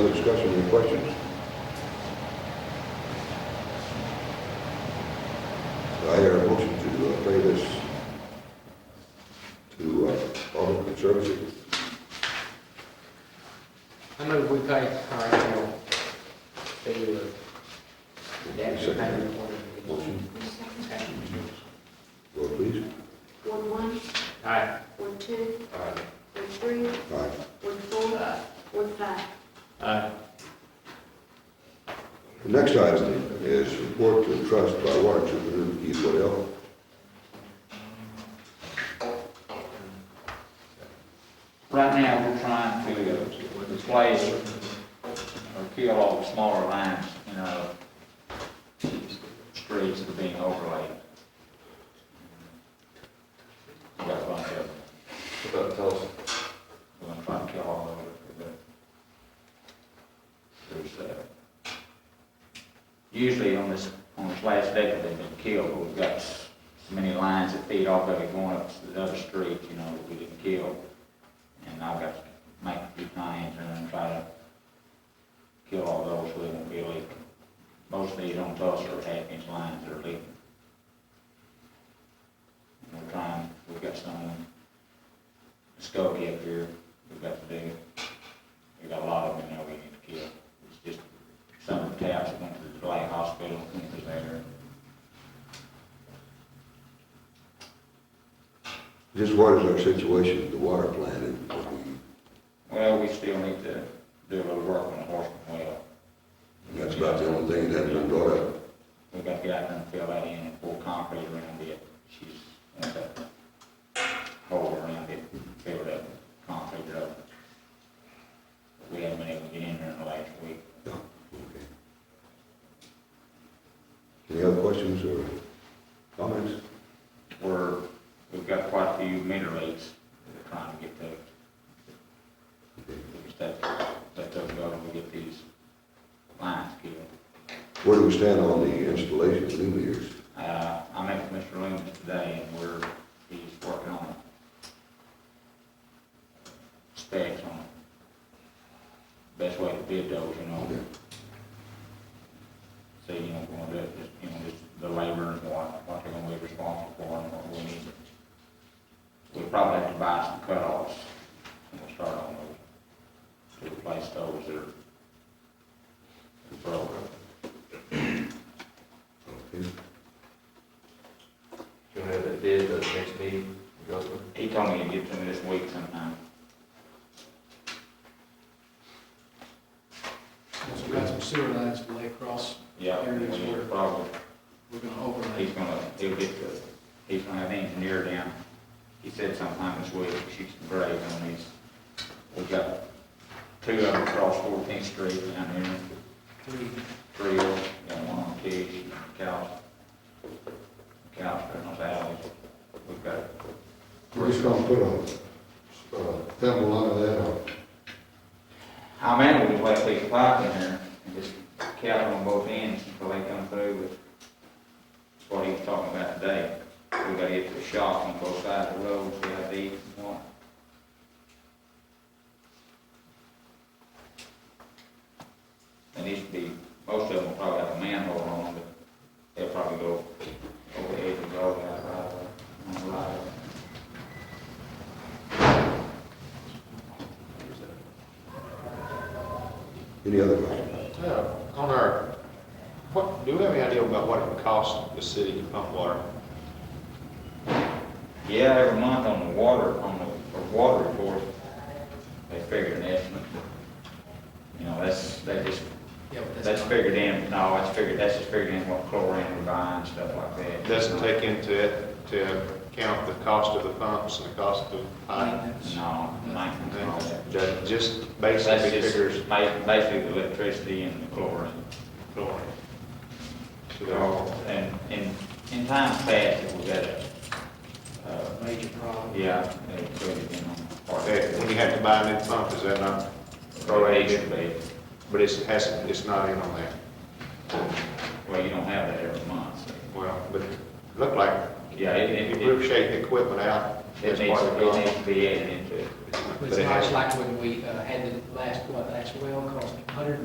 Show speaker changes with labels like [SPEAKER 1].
[SPEAKER 1] Other discussion, any questions? Do I hear a motion to uh, pay this to uh, Alderman Conservancy?
[SPEAKER 2] I move we pay Carl Hill to uh, that's the payment for the
[SPEAKER 1] Motion,
[SPEAKER 2] Okay.
[SPEAKER 1] vote please.
[SPEAKER 3] Ward one,
[SPEAKER 2] Aye.
[SPEAKER 3] Ward two,
[SPEAKER 2] Aye.
[SPEAKER 3] Ward three,
[SPEAKER 1] Aye.
[SPEAKER 3] Ward four,
[SPEAKER 2] Aye.
[SPEAKER 3] Ward five.
[SPEAKER 4] Uh,
[SPEAKER 2] Aye.
[SPEAKER 1] The next item is report to trust by water E superintendent Keith Waddell.
[SPEAKER 4] Right now, we're trying to uh, replace or kill all the smaller lines in our streets that are being overlaid. We got a bunch of them.
[SPEAKER 5] About tell us,
[SPEAKER 4] We're gonna try and kill all of it. There's, uh, usually on this, on this last decade, they've been killed, but we've got s- so many lines that feed off of it going up to the other street, you know, that we didn't kill. And I've got to make a few plans and then try to kill all those so they won't be leaking. Most of these on Tulsa are half inch lines that are leaking. And We're trying, we've got some in Skokie up here, we've got to do. We've got a lot of them in there we need to kill. It's just some of the taps that went to the Delay Hospital, went to there.
[SPEAKER 1] Just what is our situation with the water plant and what we,
[SPEAKER 4] Well, we still need to do a little work on the Horseman well.
[SPEAKER 1] that's about the only thing that has been brought up.
[SPEAKER 4] We've got to get out there and fill that in and pour concrete around it. She's, wants that hole around it, fill it up, concrete it up. We haven't been able to get in there in the last week.
[SPEAKER 1] No, okay. Any other questions or comments?
[SPEAKER 4] We're, we've got quite a few meter leaks that we're trying to get those. Just that, that doesn't go when we get these lines killed.
[SPEAKER 1] Where do we stand on the installation of new meters?
[SPEAKER 4] Uh, I met with Mr. Loomis today and we're, he's working on specs on best way to bid those, you know. So, you know, we're gonna do it, just, you know, just the labor and what, what they're gonna be responsible for and what we need. We probably have to buy some cutoffs and we'll start on those to replace those that are broken.
[SPEAKER 1] Okay.
[SPEAKER 5] you want to have that bid at the next meeting, go through?
[SPEAKER 4] He told me to get to me this week sometime.
[SPEAKER 6] So we got some sewer lines to lay across,
[SPEAKER 4] Yeah,
[SPEAKER 6] Here
[SPEAKER 4] we
[SPEAKER 6] it is,
[SPEAKER 4] need
[SPEAKER 6] where-
[SPEAKER 4] probably,
[SPEAKER 6] we're gonna overlay.
[SPEAKER 4] he's gonna, he'll get the, he's gonna have the engineer down. He said sometime this week, shoot some grade on these. We've got two of them across Fourteenth Street down here,
[SPEAKER 6] three.
[SPEAKER 4] three of them, got one on Tish, and Cal. Cal's putting those alleys. We've got,
[SPEAKER 7] We're just gonna put a, a pebble under that, or
[SPEAKER 4] how many we left these pipe in there and just cap on both ends until they come through with what he was talking about today. We gotta get the shock on both sides of the road, see how deep and what. And these should be, most of them will probably have a manhole on them, but they'll probably go over the edge and go out right away, on the right away.
[SPEAKER 1] Any other questions?
[SPEAKER 5] Yeah, on our, what, do we have any idea about what it would cost the city to pump water?
[SPEAKER 4] Yeah, every month on the water, on the, the water report, they figure an estimate. You know, that's, they just,
[SPEAKER 6] Yeah, but
[SPEAKER 4] that's
[SPEAKER 6] that's not,
[SPEAKER 4] figured in, no, that's figured, that's just figured in what chlorine we're buying, stuff like that.
[SPEAKER 5] It Doesn't take into it, to account the cost of the pumps and the cost of pipe?
[SPEAKER 6] Maintenance.
[SPEAKER 4] No, maintenance and all that.
[SPEAKER 5] That just
[SPEAKER 4] That's
[SPEAKER 5] basically figures
[SPEAKER 4] just ba- basically the electricity and the chlorine.
[SPEAKER 5] flooring. So they're all-
[SPEAKER 4] And, and in times past, it was at a, uh,
[SPEAKER 6] major problem.
[SPEAKER 4] yeah, they put it in on. part of
[SPEAKER 5] that- When you have to buy a new pump, is that not,
[SPEAKER 4] Proration, but,
[SPEAKER 5] but it's, has, it's not in on that?
[SPEAKER 4] well, you don't have that every month, so.
[SPEAKER 5] Well, but it looked like
[SPEAKER 4] Yeah, it,
[SPEAKER 5] If
[SPEAKER 4] it,
[SPEAKER 5] you
[SPEAKER 4] it,
[SPEAKER 5] rotate the equipment out,
[SPEAKER 4] it
[SPEAKER 5] that's
[SPEAKER 4] needs,
[SPEAKER 5] part of
[SPEAKER 4] it
[SPEAKER 5] the
[SPEAKER 4] needs to be added into it.
[SPEAKER 5] But
[SPEAKER 2] It's
[SPEAKER 5] it
[SPEAKER 2] much
[SPEAKER 5] has-
[SPEAKER 2] like when we uh, had the last, what, last well cost a hundred